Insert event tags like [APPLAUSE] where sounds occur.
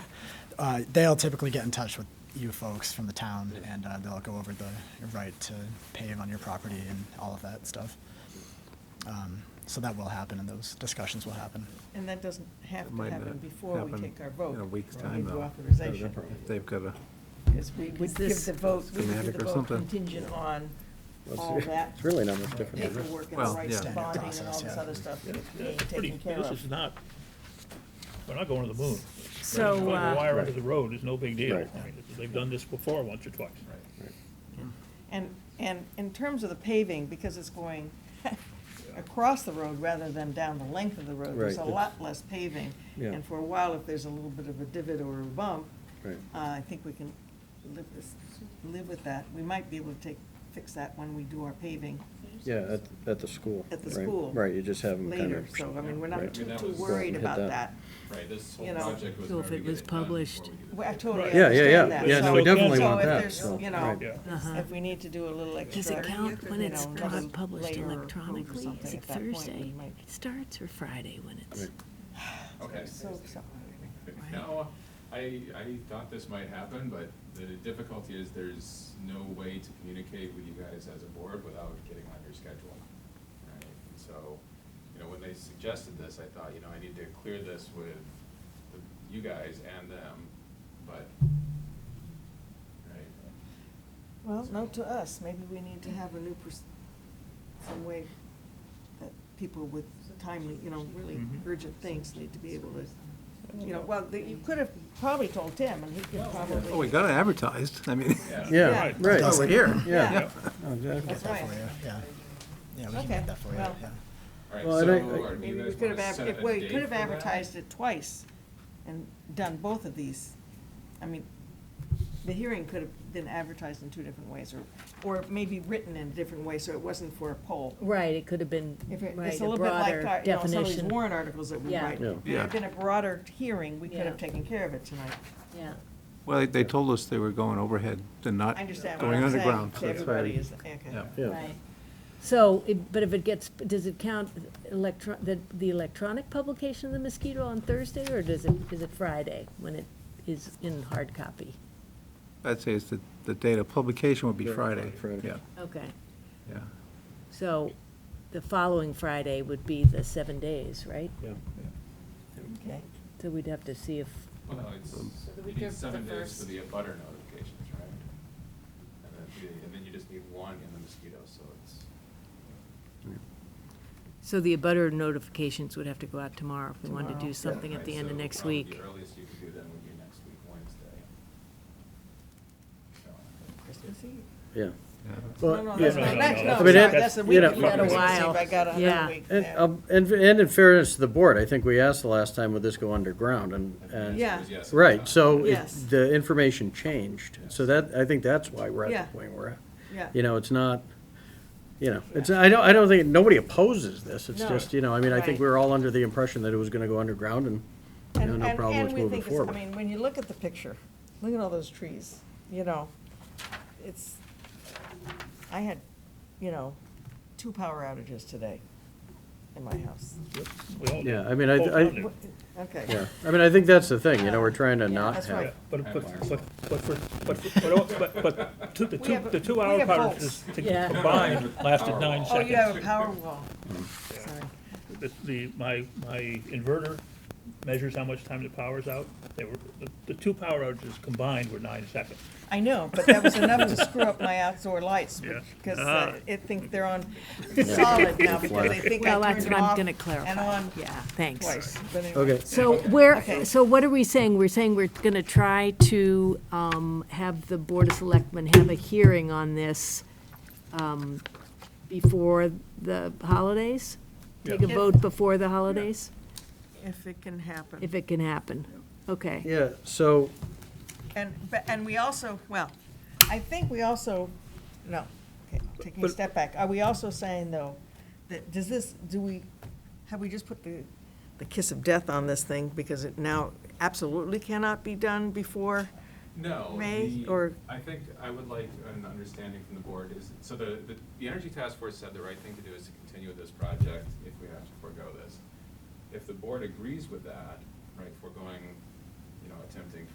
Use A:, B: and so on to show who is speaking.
A: uh, they'll typically get in touch with you folks from the town, and uh, they'll go over the right to pave on your property and all of that stuff. Um, So that will happen, and those discussions will happen.
B: And that doesn't have
C: It
B: to
C: might
B: happen
C: not
B: before we
C: happen
B: take our vote.
C: In a week's
B: or
C: time,
B: give
C: though.
B: Authorization,
C: If They've got a,
B: because we would
D: Is
B: give
D: this
B: the vote, we would give
C: schematic
B: the
C: or
B: vote
C: something?
B: contingent on
E: Well,
B: all
E: it's-
B: that
E: It's really not much different. is it?
B: paperwork and the
C: Well,
B: rights
C: yeah.
B: to
A: Standard
B: bonding and all
A: process,
B: this
A: yeah.
B: other stuff being
F: It's pretty-
B: taken care of.
F: This is not, we're not going to the moon.
D: So,
F: Putting a
D: uh,
F: wire under the road is no big deal.
E: Right.
F: I mean, They've done this before, once or twice.
B: And, and in terms of the paving, because it's going [LAUGHS] across the road rather than down the length of the road, there's a
E: Right, it's-
B: lot less paving.
E: Yeah.
B: And for a while, if there's a little bit of a divot or a bump,
E: Right.
B: uh, I think we can live this, live with that. We might be able to take, fix that when we do our paving
E: Yeah, at, at the school.
B: At the
E: right?
B: school.
E: Right, you just have them kind
B: later,
E: of.
B: so, I mean, we're
E: right.
B: not too,
G: I mean, that
B: too
G: was-
B: worried
E: Hit
B: about
E: that.
B: that.
G: Right, this
B: You
G: whole
B: know.
G: project was.
D: So if
G: already
D: it was
G: getting done
D: published-
G: before we did
B: We- I
G: that.
B: totally
F: Right.
B: understand
E: Yeah,
B: that.
E: yeah, yeah, yeah, no, we
F: So-
E: definitely
F: so
E: want
B: if
E: that,
B: there's,
E: so,
B: you know,
E: right.
F: Yeah.
D: Uh-huh.
B: If we need to do a little extra.
D: Does it count when
B: you
D: it's
B: know,
D: pub-
B: another
D: published
B: layer or
D: electronically?
B: something
D: Is it
B: at that point, we
D: Thursday?
B: might-
D: It starts or Friday when it's?
E: Right.
G: Okay.
B: So, so-
G: [LAUGHS] Now, I, I thought this might happen, but the difficulty is there's no way to communicate with you guys as a board without getting on your schedule. right? And So, you know, when they suggested this, I thought, you know, I need to clear this with the- you guys and them, but, right?
B: Well, note to us, maybe we need to have a new, pers- some way that people with timely, you know, really
F: Mhm.
B: urgent things need to be able to, you know, well, the- you could have probably told Tim, and he could
C: oh, we
B: probably.
C: got it advertised, I mean.
E: [LAUGHS] Yeah,
B: Yeah.
E: right.
C: Oh, we're here.
E: Yeah.
B: Yeah.
C: Oh,
E: No, exactly.
B: That's right.
A: For you, yeah. Yeah, we can
B: Okay,
A: make that for you,
B: well.
A: yeah.
G: All right,
E: Well, I
G: so
E: don't- I-
G: are
B: Maybe
G: you
B: we
G: guys
B: could
G: want
B: have,
G: to set a
B: adver- well, you
G: date
B: could have
G: for that?
B: advertised it twice and done both of these. I mean, the hearing could have been advertised in two different ways, or, or maybe written in a different way, so it wasn't for a poll.
D: Right, it could have been,
B: If it-
D: right,
B: It's a
D: a
B: little bit like,
D: broader
B: our- you know, some of these
D: definition.
B: warrant articles that we
D: Yeah.
B: write.
E: Yeah.
B: If there had been a broader hearing, we could
D: Yeah.
B: have taken care of it tonight.
D: Yeah,
C: Well, they, they told us they were going overhead and not
B: I understand what
C: going
B: I'm saying
C: underground. so
B: to
C: that's why
B: everybody
C: we-
B: is, okay.
C: Yeah.
E: Yeah,
D: right. So, it- but if it gets, does it count electro, the, the electronic publication of the mosquito on Thursday? Or does it, is it Friday when it is in hard copy?
C: I'd say it's the, the date of publication would be
E: Yeah,
C: Friday.
E: Friday.
C: Yeah,
D: Okay,
C: yeah.
D: so the following Friday would be the seven days, right?
E: yeah.
B: Okay.
D: So we'd have to see if,
G: Well, no, it's,
H: the
G: you
H: week
G: need
H: of
G: seven
H: the
G: days for
H: first-
G: the abutter notifications, right? And then, the- and then you just need one in the mosquito, so it's,
D: so the abutter notifications would have to go out tomorrow if we wanted to
B: Tomorrow.
D: do something at
G: right,
D: the end of
G: so
D: next
G: probably
D: week.
G: The earliest you could do then would be next week, Wednesday. So,
B: Christmas Eve.
E: Yeah.
C: Yeah.
B: No, no,
E: Well,
B: that's
F: No,
B: not,
F: no,
B: that's,
F: no,
B: no,
F: I
B: sorry,
E: mean, it-
B: that's the
E: you
B: week
E: know-
B: before
D: Got a
B: Christmas Eve,
D: while.
B: I got another
D: Yeah.
B: week.
E: And,
B: yeah.
E: um, and, and in fairness to the board, I think we asked the last time, would this go underground, and,
G: I think the
E: and.
B: Yeah.
G: answer is yes at the
E: Right,
G: time.
E: so it-
B: Yes.
E: the information changed, so that, I think that's why we're
B: Yeah.
E: at the point we're at.
B: Yeah.
E: You know, it's not, you know, it's, I don't, I don't think, nobody opposes this, it's
B: No.
E: just, you know, I mean, I think
B: Right.
E: we were all under the impression that it was gonna go underground, and, you know,
B: And,
E: no
B: and,
E: problem
B: and
E: with
B: we
E: moving
B: think, it's- I
E: forward.
B: mean, when you look at the picture, look at all those trees, you know, it's, I had, you know, two power outages today in my house.
F: We all do.
E: Yeah, I mean, I-
F: Both
E: I-
F: on it.
B: Okay.
E: Yeah, I mean, I think that's the thing, you know, we're trying to
B: Yeah,
E: not
B: that's
E: have.
B: right.
F: Yeah, But, but, but, but, for- but, for- but, all- but, but, two- the
B: We
F: two,
B: have a-
F: the two
B: we
F: hour
B: have
F: parts
B: bolts.
F: to
D: Yeah.
F: combined lasted nine
B: Oh, you have
F: seconds.
B: a power wall.
F: The- The, my, my inverter measures how much time the power's out. They were, the- the two power outages combined were nine seconds.
B: I know, but that was enough to screw up my outdoor lights,
F: Yeah.
B: because
F: Ah.
B: I think they're on solid now, because they think
D: Well,
B: I turned
D: that's what
B: them
D: I'm
B: off
D: gonna
B: and
D: clarify.
B: on
D: Yeah, thanks.
B: twice. But anyway.
E: Okay,
D: So we're,
B: Okay.
D: so what are we saying? We're saying we're gonna try to, um, have the Board of Selectmen have a hearing on this, um, before the holidays? Take a
B: Yeah.
D: vote before the holidays,
B: If it can happen.
D: if it can happen? Okay,
E: yeah, so,
B: And, but, and we also, well, I think we also, no, okay, taking a
F: But-
B: step back, are we also saying, though, that, does this, do we, have we just put the, the kiss of death on this thing, because it now absolutely cannot be done before?
G: No.
B: May,
G: the-
B: or-
G: I think I would like an understanding from the board is, so the, the, the Energy Task Force said the right thing to do is to continue with this project if we have to forego this. If the board agrees with that, right, foregoing, you know, attempting